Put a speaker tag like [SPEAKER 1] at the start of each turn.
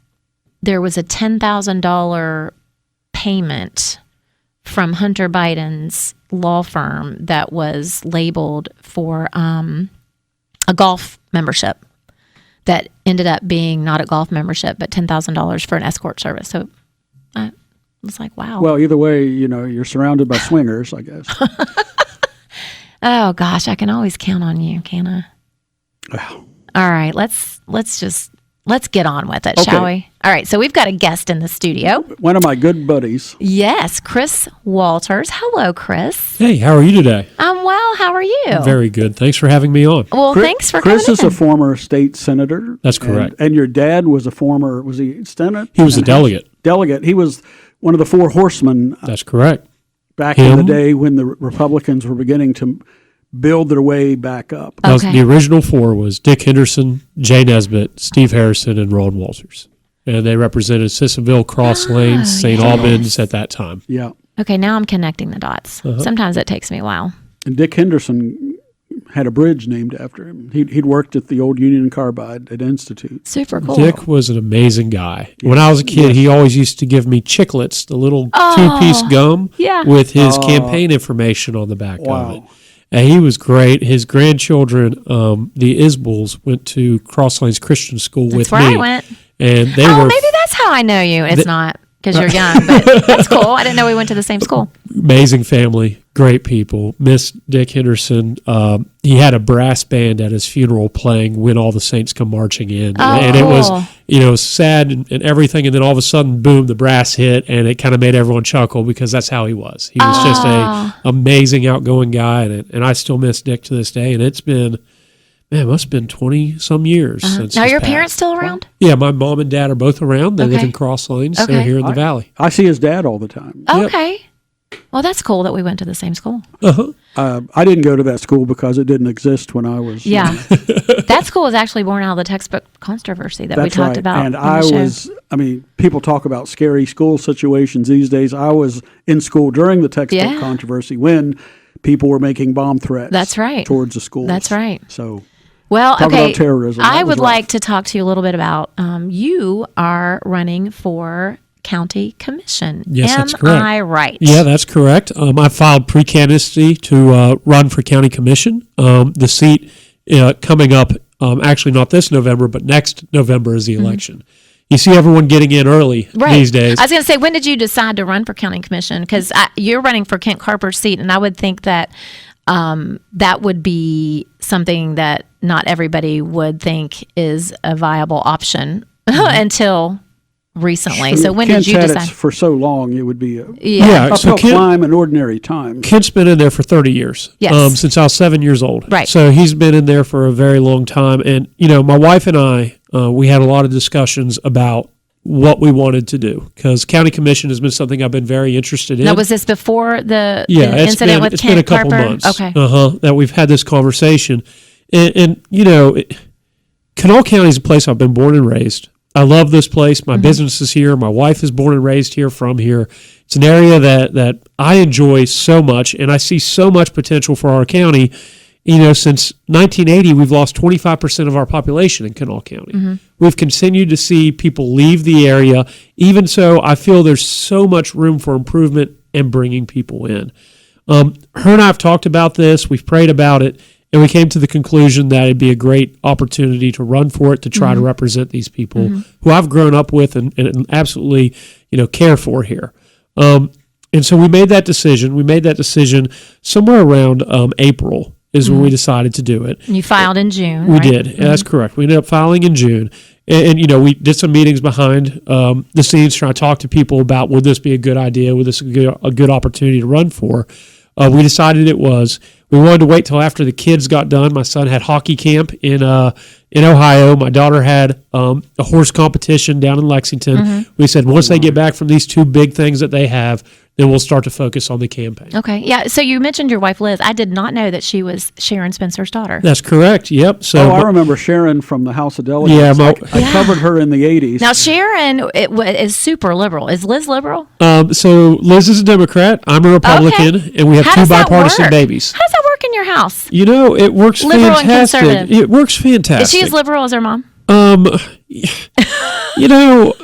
[SPEAKER 1] there was a $10,000 payment from Hunter Biden's law firm that was labeled for um, a golf membership that ended up being not a golf membership, but $10,000 for an escort service. So I was like, wow.
[SPEAKER 2] Well, either way, you know, you're surrounded by swingers, I guess.
[SPEAKER 1] oh gosh, I can always count on you, can I?
[SPEAKER 2] Wow.
[SPEAKER 1] All right, let's let's just let's get on with it, shall
[SPEAKER 2] Okay.
[SPEAKER 1] we? All right, so we've got a guest in the studio.
[SPEAKER 2] One of my good buddies.
[SPEAKER 1] Yes, Chris Walters. Hello, Chris.
[SPEAKER 3] Hey, how are you today?
[SPEAKER 1] I'm well. How are you?
[SPEAKER 3] Very good. Thanks for having me on.
[SPEAKER 1] well,
[SPEAKER 2] Chris-
[SPEAKER 1] thanks for
[SPEAKER 2] Chris
[SPEAKER 1] coming.
[SPEAKER 2] is a former state senator.
[SPEAKER 3] That's
[SPEAKER 2] and-
[SPEAKER 3] correct.
[SPEAKER 2] And, your dad was a former, was he Senate?
[SPEAKER 3] He was a
[SPEAKER 2] And House
[SPEAKER 3] delegate.
[SPEAKER 2] Delegate. He was one of the four horsemen
[SPEAKER 3] That's correct.
[SPEAKER 2] back in the
[SPEAKER 3] Him?
[SPEAKER 2] day when the Republicans were beginning to build their way back up.
[SPEAKER 3] That was-
[SPEAKER 1] Okay.
[SPEAKER 3] the original four was Dick Henderson, Jay Nesbitt, Steve Harrison, and Ron Walters. And they represented Sissonville, Cross
[SPEAKER 1] Ah,
[SPEAKER 3] Lanes, St. Albans at that time.
[SPEAKER 2] Yeah.
[SPEAKER 1] okay, now I'm connecting the dots. Sometimes it takes me a while.
[SPEAKER 2] And Dick Henderson had a bridge named after him. He'd, he'd worked at the old Union Carbide at Institute.
[SPEAKER 1] Super cool.
[SPEAKER 3] Dick was an amazing guy. When I was a kid, he always used to give me chiclets, the little two-piece gum
[SPEAKER 1] Oh, yeah.
[SPEAKER 3] with his campaign information on the back
[SPEAKER 2] Wow.
[SPEAKER 3] of it. And he was great. His grandchildren, um, the Isbels, went to Cross Lanes Christian School
[SPEAKER 1] That's
[SPEAKER 3] with
[SPEAKER 1] where
[SPEAKER 3] me.
[SPEAKER 1] I went.
[SPEAKER 3] And they
[SPEAKER 1] Oh,
[SPEAKER 3] were
[SPEAKER 1] maybe that's how I know you. It's not because you're young, but that's cool. I didn't know we went to the same school.
[SPEAKER 3] amazing family, great people. Miss Dick Henderson. Um, he had a brass band at his funeral playing "When All the Saints Come Marching In,"
[SPEAKER 1] Oh,
[SPEAKER 3] and it
[SPEAKER 1] cool.
[SPEAKER 3] was you know sad and, and everything. And then all of a sudden, boom, the brass hit, and it kind of made everyone chuckle because that's how he was. He was just
[SPEAKER 1] Ah.
[SPEAKER 3] a amazing, outgoing guy, and and I still miss Dick to this day. And it's been. Man, it must have been twenty some years since.
[SPEAKER 1] Uh-huh. Now,
[SPEAKER 3] he's
[SPEAKER 1] your
[SPEAKER 3] passed.
[SPEAKER 1] parents still around?
[SPEAKER 3] Yeah, my mom and dad are both around. They live
[SPEAKER 1] Okay.
[SPEAKER 3] in Cross Lanes.
[SPEAKER 1] Okay.
[SPEAKER 3] They're here in the valley.
[SPEAKER 2] I see his dad all the time.
[SPEAKER 3] Yep.
[SPEAKER 1] Okay. Well, that's cool that we went to the same school.
[SPEAKER 3] Uh huh.
[SPEAKER 2] Uh, I didn't go to that school because it didn't exist when I was.
[SPEAKER 1] Yeah. that school was actually born out of the textbook controversy that we
[SPEAKER 2] That's
[SPEAKER 1] talked
[SPEAKER 2] right.
[SPEAKER 1] about.
[SPEAKER 2] And
[SPEAKER 1] on
[SPEAKER 2] I
[SPEAKER 1] the show.
[SPEAKER 2] was, I mean, people talk about scary school situations these days. I was in school during the textbook
[SPEAKER 1] Yeah.
[SPEAKER 2] controversy when people were making bomb threats.
[SPEAKER 1] That's right.
[SPEAKER 2] Towards the schools.
[SPEAKER 1] That's right.
[SPEAKER 2] So
[SPEAKER 1] Well,
[SPEAKER 2] Talk
[SPEAKER 1] okay.
[SPEAKER 2] about terrorism. That
[SPEAKER 1] I
[SPEAKER 2] was
[SPEAKER 1] would
[SPEAKER 2] rough.
[SPEAKER 1] like to talk to you a little bit about um, you are running for county commission.
[SPEAKER 3] Yes,
[SPEAKER 1] Am
[SPEAKER 3] that's correct.
[SPEAKER 1] I right?
[SPEAKER 3] Yeah, that's correct. Um, I filed pre-candidacy to uh, run for county commission. Um, the seat uh, coming up, um, actually not this November, but next November is the election. You see everyone getting in early
[SPEAKER 1] Mm-hmm. Right.
[SPEAKER 3] these days.
[SPEAKER 1] I was going to say, when did you decide to run for county commission? Because you're running for Kent Carper's seat, and I would think that um, that would be something that not everybody would think is a viable option
[SPEAKER 3] Mm-hmm.
[SPEAKER 1] until recently. So when
[SPEAKER 2] Kent's
[SPEAKER 1] did you
[SPEAKER 2] had it
[SPEAKER 1] decide?
[SPEAKER 2] for so long, it would be a
[SPEAKER 3] yeah,
[SPEAKER 2] uphill
[SPEAKER 3] Uh, so Ken,
[SPEAKER 2] climb in ordinary time.
[SPEAKER 3] Kent's been in there for 30 years.
[SPEAKER 1] Yes.
[SPEAKER 3] Um, since I was seven years old.
[SPEAKER 1] Right.
[SPEAKER 3] So he's been in there for a very long time. And, you know, my wife and I, uh, we had a lot of discussions about what we wanted to do because county commission has been something I've been very interested in.
[SPEAKER 1] Now, was this before the,
[SPEAKER 3] yeah,
[SPEAKER 1] the
[SPEAKER 3] it's
[SPEAKER 1] incident
[SPEAKER 3] been,
[SPEAKER 1] with
[SPEAKER 3] it's
[SPEAKER 1] Kent
[SPEAKER 3] been a couple
[SPEAKER 1] Carper?
[SPEAKER 3] months.
[SPEAKER 1] Okay.
[SPEAKER 3] uh huh, that we've had this conversation, and, and you know, it, Kanawha County is a place I've been born and raised. I love this place.
[SPEAKER 1] Mm-hmm.
[SPEAKER 3] My business is here. My wife is born and raised here. From here, it's an area that that I enjoy so much, and I see so much potential for our county. You know, since 1980, we've lost 25% of our population in Kanawha County.
[SPEAKER 1] Mm-hmm.
[SPEAKER 3] We've continued to see people leave the area. Even so, I feel there's so much room for improvement and bringing people in. Um, her and I have talked about this. We've prayed about it, and we came to the conclusion that it'd be a great opportunity to run for it to try to represent these people who I've grown up with and, and absolutely, you know, care for here. Um, and so we made that decision. We made that decision somewhere around um, April is when we decided to do it.
[SPEAKER 1] You filed in June.
[SPEAKER 3] We
[SPEAKER 1] right? Mm-hmm.
[SPEAKER 3] did. Yeah, That's correct. We ended up filing in June, and, and, you know we did some meetings behind um, the scenes trying to talk to people about would this be a good idea? Would this be a good, a good opportunity to run for? Uh, we decided it was. We wanted to wait till after the kids got done. My son had hockey camp in uh, in Ohio. My daughter had um, a horse competition down in Lexington.
[SPEAKER 1] Mm-hmm.
[SPEAKER 3] We said once they get back from these two big things that they have, then we'll start to focus on the campaign.
[SPEAKER 1] Okay. Yeah. So you mentioned your wife, Liz. I did not know that she was Sharon Spencer's daughter.
[SPEAKER 3] That's correct. Yep. So
[SPEAKER 2] Oh,
[SPEAKER 3] my-
[SPEAKER 2] I remember Sharon from the House of Delegates.
[SPEAKER 3] Yeah, my-
[SPEAKER 2] I, I covered her in the 80s.
[SPEAKER 1] Now, Sharon it, wa- is super liberal. Is Liz liberal?
[SPEAKER 3] Um, so Liz is a Democrat. I'm a Republican,
[SPEAKER 1] Okay.
[SPEAKER 3] and we have
[SPEAKER 1] How
[SPEAKER 3] two
[SPEAKER 1] does that
[SPEAKER 3] bipartisan
[SPEAKER 1] work?
[SPEAKER 3] babies.
[SPEAKER 1] How does that work in your house?
[SPEAKER 3] You know, it works
[SPEAKER 1] Liberal and
[SPEAKER 3] fantastic.
[SPEAKER 1] conservative.
[SPEAKER 3] It works fantastic.
[SPEAKER 1] Is she as liberal as her mom?
[SPEAKER 3] um, you know,